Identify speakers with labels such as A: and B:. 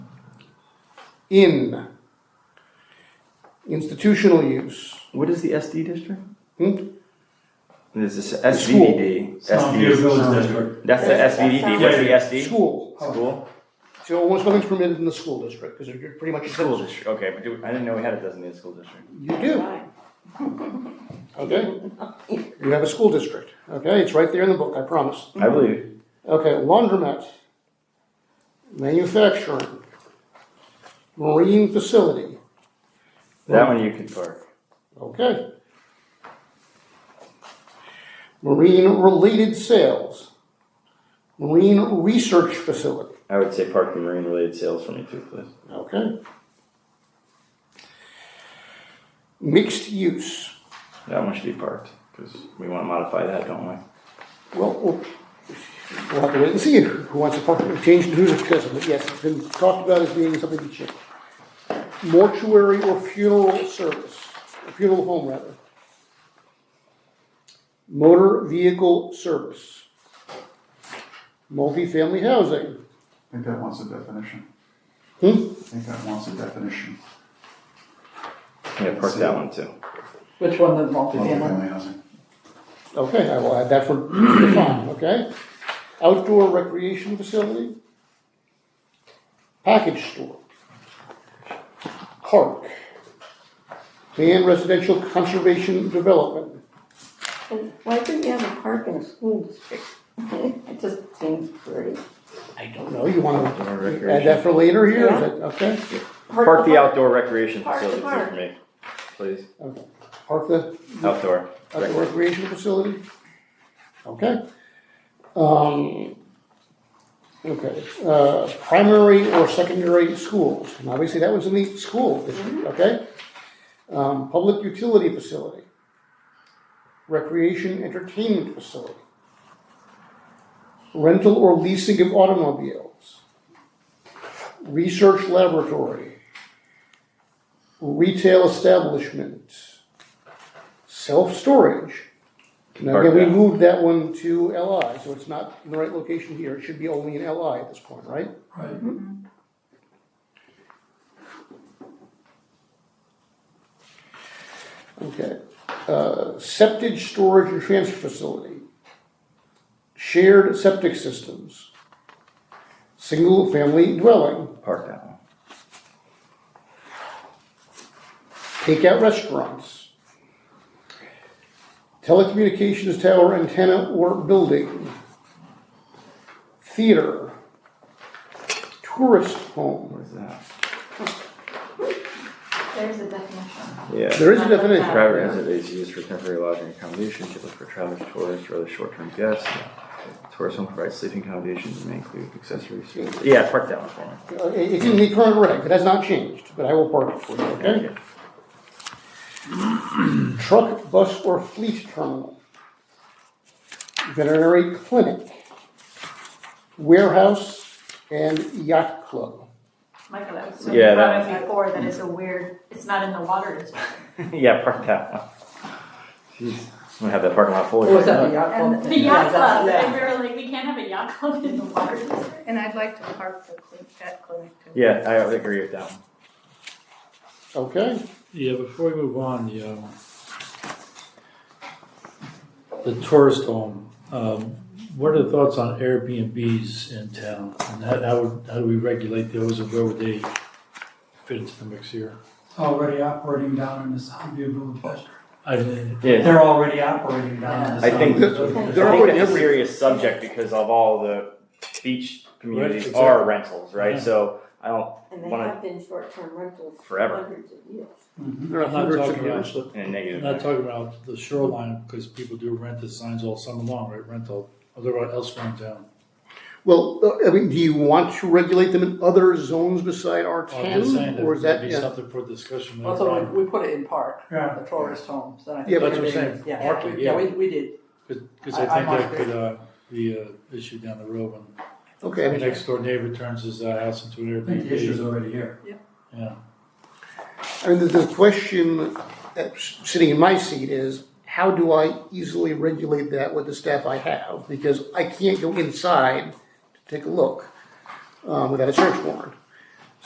A: in institutional use.
B: What is the SD district?
A: Hmm?
B: This is SVD.
C: Stonefield
B: SVD.
C: Village District.
B: That's the SVD,
C: That's
B: that's the SD?
A: School.
B: School?
A: So almost nothing's permitted in the school district, because you're pretty much.
B: School district, okay, but do- I didn't know we had a designated school district.
A: You do, okay? You have a school district, okay? It's right there in the book, I promise.
B: I believe.
A: Okay, laundromat, manufacturing, marine facility,
B: That one you could park.
A: okay. Marine-related sales, marine research facility,
B: I would say park and marine related sales for me too, please.
A: okay. Mixed use,
B: That one should be parked, because we want to modify that, don't we?
A: well, we'll we'll have to wait and see who wants to talk, change the who's discussing, but yes, it's been talked about as being something to change. Mortuary or funeral service, or funeral home rather. Motor vehicle service. Multifamily housing,
D: I think that wants a definition.
A: Hmm?
D: I think that wants a definition.
B: Yeah, park that one too.
E: Which one, the multifamily?
D: Multifamily housing.
A: okay, I will add that for the fund, okay? Outdoor recreation facility. Package store. Park. Land residential conservation development.
F: And Why couldn't you have a park in a school district? It just seems pretty.
A: I don't know, you wanna
B: Outdoor
A: add
B: recreation.
A: that for later here, is that, okay?
B: Park the outdoor recreation
F: Park the
B: facility too
F: park.
B: for me, please.
A: Park the,
B: Outdoor.
A: outdoor
B: Rec-
A: recreation facility? Okay. Um, okay, uh, primary or secondary schools, and obviously that was in the school district, okay? Um, public utility facility. Recreation entertainment facility. Rental or leasing of automobiles. Research laboratory. Retail establishment self-storage. Now,
B: Park
A: again, we
B: that.
A: moved that one to LI, so it's not in the right location here, it should be only in LI at this point, right?
C: Right.
A: Okay. Uh, septic storage and transfer facility. Shared septic systems. Single-family dwelling,
B: Park that one.
A: takeout restaurants. Telecommunications tower antenna or building. Theater. Tourist home.
B: Where's that?
F: There's a definition.
B: Yeah.
A: There is a definition.
B: Private residence is used for temporary lodging accommodation, typically for travelers, tourists, or other short-term guests. Tourist home provides sleeping accommodations and may include accessories. Yeah, park that one for me.
A: Uh, it- It's in the current reg, it has not changed, but I will park it for you,
B: Thank
A: okay?
B: you.
A: Truck, bus, or fleet terminal. Veterinary clinic. Warehouse and yacht club.
G: Michael, that was something
B: Yeah,
G: you brought
B: that-
G: up before, that it's a weird, it's not in the water district.
B: Yeah, park that one. Jeez, I'm gonna have that parking lot full.
E: Or was that the yacht club?
G: And the
E: thing?
G: yacht
E: Yeah, that's-
G: club, and
E: yeah.
G: we were like, we can't have a yacht club in the water district.
H: And I'd like to park the cli- vet clinic too.
B: Yeah, I would agree with that one.
A: Okay,
C: Yeah, before we move on, the, um, the tourist home, um, what are the thoughts on Airbnbs in town? And how, how would, how do we regulate those and where would they fit into the mix here?
I: It's already operating down in the Soundview Village District.
C: I mean,
B: Yeah,
I: They're already operating down in the
B: I think-
I: Soundview Village
B: I
A: They're
I: District.
B: think
A: already
B: that's a
A: everywhere.
B: serious subject because of all the beach communities
C: exactly.
B: are rentals, right?
C: Yeah.
B: So I don't,
F: And they
B: Wanna-
F: have been short-term rentals for
B: Forever.
F: hundreds of years.
I: Mhm.
A: there are
C: I'm not
A: hundreds of
C: talking about-
A: years.
B: in a negative.
C: I'm not
B: way.
C: talking about the shoreline, because people do rent the signs all summer long, right, rental, although elsewhere in town.
A: Well, uh, I mean, do you want to regulate them in other zones beside R
C: Oh, I'm just saying
A: ten?
C: that
A: Or is
C: would
A: that,
C: be
A: yeah,
C: something for discussion later
E: Also,
C: on.
E: we, we put it in park,
I: Yeah.
E: the tourist homes, and I
A: Yeah, but-
E: think.
C: That's what I'm saying,
E: Yeah,
C: parking,
E: Yeah,
C: yeah.
E: we, we did.
C: Because
E: I-
C: I
E: I'm
C: think that
E: on
C: could, uh, be a issue down the road when
A: okay, I
C: The
A: mean,
C: next door neighbor turns his uh, house into an
I: I think the issue's
C: Airbnb.
I: already here.
C: Yeah.
A: I mean, the, the question that's sitting in my seat is, how do I easily regulate that with the staff I have? Because I can't go inside to take a look um, without a search warrant.